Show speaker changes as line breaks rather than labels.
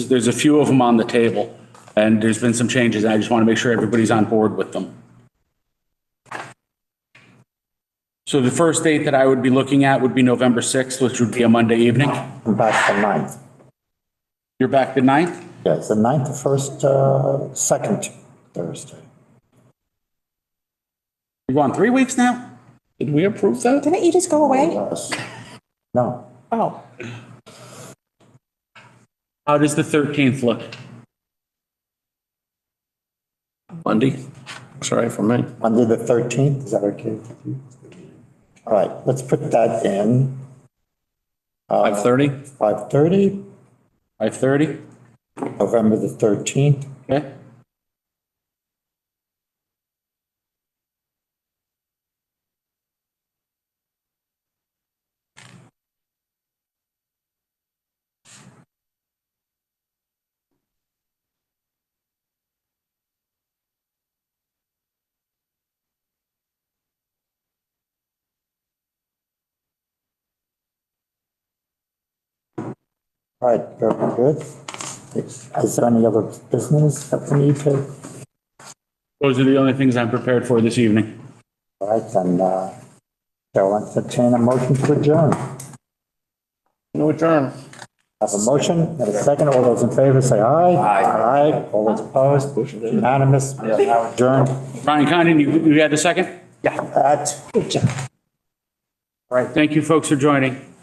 There's a few of them on the table, and there's been some changes, and I just want to make sure everybody's on board with them. So the first date that I would be looking at would be November 6th, which would be a Monday evening.
Back the ninth.
You're back the 9th?
Yes, the ninth, the first, uh, second Thursday.
You've gone three weeks now? Did we approve that?
Didn't you just go away?
Yes. No,
Oh,
How does the 13th look?
Monday. Sorry for me.
Monday the thirteenth, is that okay with you? All right, let's put that in, Uh,
5:30?
five thirty,
5:30?
November the thirteenth.
Okay.
All right, very good. Is there any other business that we need to?
Those are the only things I'm prepared for this evening.
All right, then, uh, Chair will entertain a motion to adjourn.
No adjourn.
Have a motion and a second. All those in favor say aye. Aye. Aye. All those opposed, unanimous, We are now adjourned
Brian Condon, you, you had the second?
at
All right, thank you folks for joining.